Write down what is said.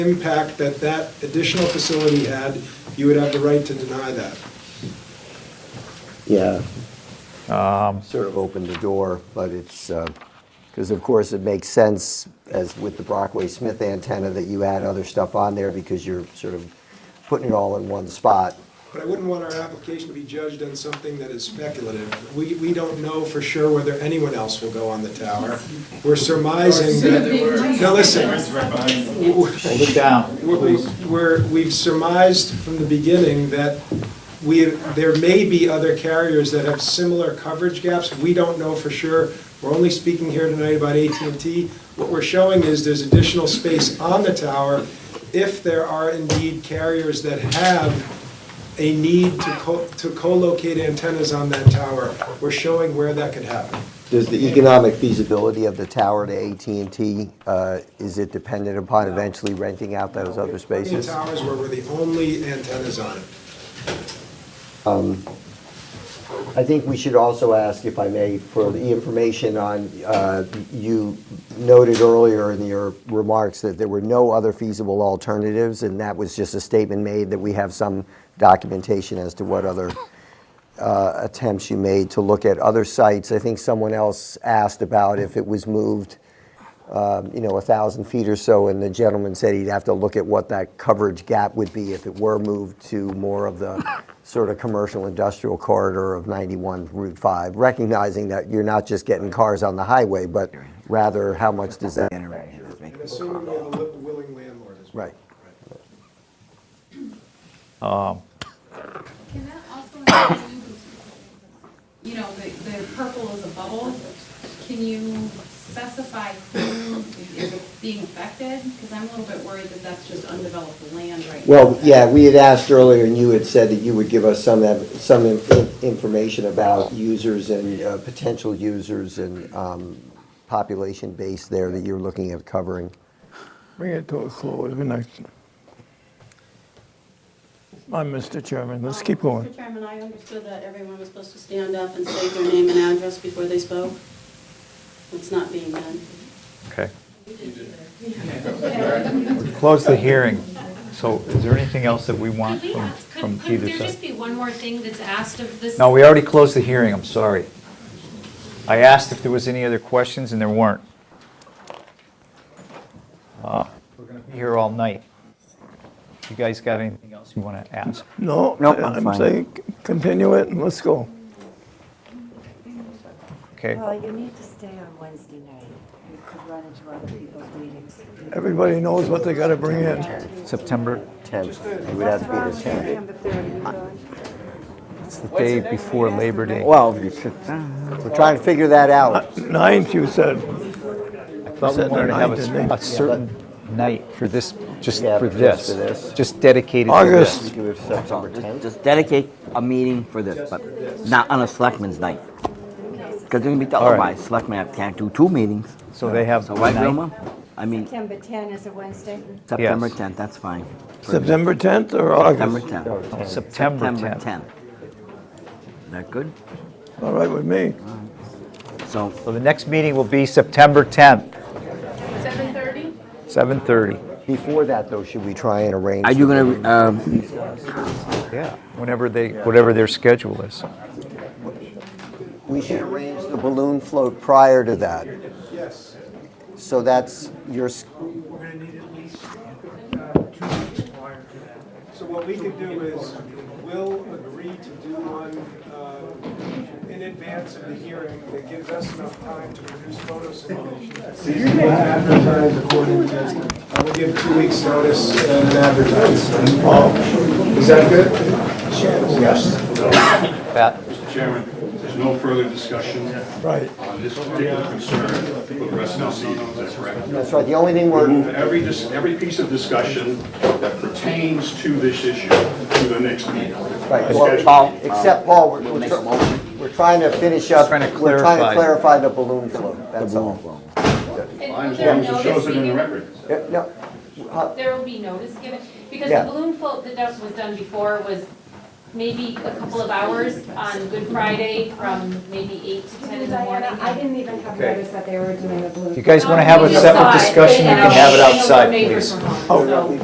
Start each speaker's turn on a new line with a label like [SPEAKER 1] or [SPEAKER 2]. [SPEAKER 1] impact that that additional facility had, you would have the right to deny that.
[SPEAKER 2] Yeah. Sort of opened the door, but it's, because of course it makes sense as with the Brockway Smith antenna that you add other stuff on there because you're sort of putting it all in one spot.
[SPEAKER 1] But I wouldn't want our application to be judged on something that is speculative. We, we don't know for sure whether anyone else will go on the tower. We're surmising that, now listen,
[SPEAKER 3] Hold it down,
[SPEAKER 1] we're- we're, we've surmised from the beginning that we, there may be other carriers that have similar coverage gaps. We don't know for sure. We're only speaking here tonight about at and t What we're showing is there's additional space on the tower if there are indeed carriers that have a need to co, to co-locate antennas on that tower. We're showing where that could happen.
[SPEAKER 2] Does the economic feasibility of the tower to at and T uh, is it dependent upon eventually renting out those other
[SPEAKER 1] Plenty of
[SPEAKER 2] spaces?
[SPEAKER 1] towers where we're the only antennas on it.
[SPEAKER 2] I think we should also ask, if I may, for the information on, uh, you noted earlier in your remarks that there were no other feasible alternatives, and that was just a statement made that we have some documentation as to what other uh, attempts you made to look at other sites. I think someone else asked about if it was moved, um, you know, a 1,000 feet or so, and the gentleman said he'd have to look at what that coverage gap would be if it were moved to more of the sort of commercial industrial corridor of 91 Route 5, recognizing that you're not just getting cars on the highway, but rather how much does that,
[SPEAKER 1] And assuming we have a li- willing landlord as well.
[SPEAKER 2] right.
[SPEAKER 4] Can that also include, you know, the, the purple is a bubble? Can you specify who is being affected? Because I'm a little bit worried that that's just undeveloped land right now.
[SPEAKER 2] Well, yeah, we had asked earlier, and you had said that you would give us some, ev- some in- information about users and uh, potential users and um, population base there that you're looking at covering.
[SPEAKER 5] Bring it to a close, we're not. Uh, Mr. Chairman, let's keep going.
[SPEAKER 6] Mr. Chairman, I understood that everyone was supposed to stand up and state their name and address before they spoke. It's not being done.
[SPEAKER 3] okay. Close the hearing. So is there anything else that we want
[SPEAKER 7] Could we
[SPEAKER 3] from,
[SPEAKER 7] ask,
[SPEAKER 3] from
[SPEAKER 7] could, could
[SPEAKER 3] either
[SPEAKER 7] there
[SPEAKER 3] side?
[SPEAKER 7] just be one more thing that's asked of this?
[SPEAKER 3] No, we already closed the hearing, I'm sorry. I asked if there was any other questions, and there weren't. Uh, We're gonna be here all night. You guys got anything else you want to ask?
[SPEAKER 5] No,
[SPEAKER 8] Nope, I'm
[SPEAKER 5] I'm
[SPEAKER 8] fine.
[SPEAKER 5] saying, c- continue it and let's go.
[SPEAKER 3] Okay,
[SPEAKER 9] Well, you need to stay on Wednesday night. You could run into other people's meetings.
[SPEAKER 5] Everybody knows what they gotta bring in.
[SPEAKER 8] September
[SPEAKER 2] 10th, it would have to be the 10th.
[SPEAKER 3] it's the day before Labor Day.
[SPEAKER 8] Well, you should, uh,
[SPEAKER 2] We're trying to figure that out.
[SPEAKER 5] Ninth, you said.
[SPEAKER 3] I thought we
[SPEAKER 5] Said
[SPEAKER 3] wanted to have
[SPEAKER 5] the ninth,
[SPEAKER 3] a-
[SPEAKER 5] didn't
[SPEAKER 3] a certain night for this, just
[SPEAKER 2] Yeah,
[SPEAKER 3] for
[SPEAKER 2] just for this.
[SPEAKER 3] this, just dedicated to this.
[SPEAKER 5] August,
[SPEAKER 2] We could have September 10th.
[SPEAKER 8] just dedicate a meeting for this, but not on a selectmen's night. Because it'll be televised, selectmen have- can't do two meetings.
[SPEAKER 3] So they have
[SPEAKER 8] So right,
[SPEAKER 3] tonight?
[SPEAKER 8] Wilma? I mean,
[SPEAKER 9] September 10 is a Wednesday.
[SPEAKER 8] September 10th, that's fine.
[SPEAKER 5] September 10th or
[SPEAKER 8] September
[SPEAKER 5] August?
[SPEAKER 8] 10th.
[SPEAKER 3] September 10th.
[SPEAKER 8] 10th. Is that good?
[SPEAKER 5] All right with me.
[SPEAKER 8] So
[SPEAKER 3] So the next meeting will be September 10th,
[SPEAKER 4] Seven thirty?
[SPEAKER 3] 7:30.
[SPEAKER 2] Before that, though, should we try and arrange?
[SPEAKER 8] are you gonna, um,
[SPEAKER 3] Yeah. Whenever they, whatever their schedule is.
[SPEAKER 2] We should arrange the balloon float prior to that.
[SPEAKER 1] Yes.
[SPEAKER 2] So that's your, s-
[SPEAKER 1] So what we could do is, we'll agree to do one uh, in advance of the hearing that gives us enough time to produce photo simulations. We'll advertise according to, I will give two weeks' notice and then advertise. Is that good? Yes.
[SPEAKER 3] Pat?
[SPEAKER 10] Mr. Chairman, there's no further discussion
[SPEAKER 5] Right.
[SPEAKER 10] on this particular concern for the rest of the season, is that correct?
[SPEAKER 2] that's right, the only thing we're,
[SPEAKER 10] Remove every, dis- every piece of discussion that pertains to this issue to the next meeting.
[SPEAKER 2] right, well,
[SPEAKER 10] Schedule.
[SPEAKER 2] Paul, except Paul, we're,
[SPEAKER 8] we'll
[SPEAKER 2] we're
[SPEAKER 8] make a
[SPEAKER 2] tr-
[SPEAKER 8] motion?
[SPEAKER 2] we're trying to finish up.
[SPEAKER 3] Trying to
[SPEAKER 2] We're trying to clarify
[SPEAKER 3] clarify.
[SPEAKER 2] the balloon float, that's all.
[SPEAKER 10] Mine,
[SPEAKER 7] And
[SPEAKER 10] As
[SPEAKER 7] will there
[SPEAKER 10] long as it
[SPEAKER 7] notice
[SPEAKER 10] shows it in the
[SPEAKER 7] be
[SPEAKER 10] record.
[SPEAKER 2] Yeah, no,
[SPEAKER 7] given? There will be notice given? Because
[SPEAKER 2] Yeah.
[SPEAKER 7] the balloon float that was done before was
[SPEAKER 4] maybe a couple of hours on Good Friday from maybe eight to ten in the morning.
[SPEAKER 9] Diana, I didn't even have
[SPEAKER 3] Okay.
[SPEAKER 9] notice that they were doing a blue.
[SPEAKER 3] If you guys want to have a
[SPEAKER 4] Um,
[SPEAKER 3] separate
[SPEAKER 4] outside,
[SPEAKER 3] discussion, you
[SPEAKER 4] and
[SPEAKER 3] can have it
[SPEAKER 4] I'll- I know
[SPEAKER 3] outside,
[SPEAKER 4] neighbors
[SPEAKER 3] please.
[SPEAKER 4] from home, so-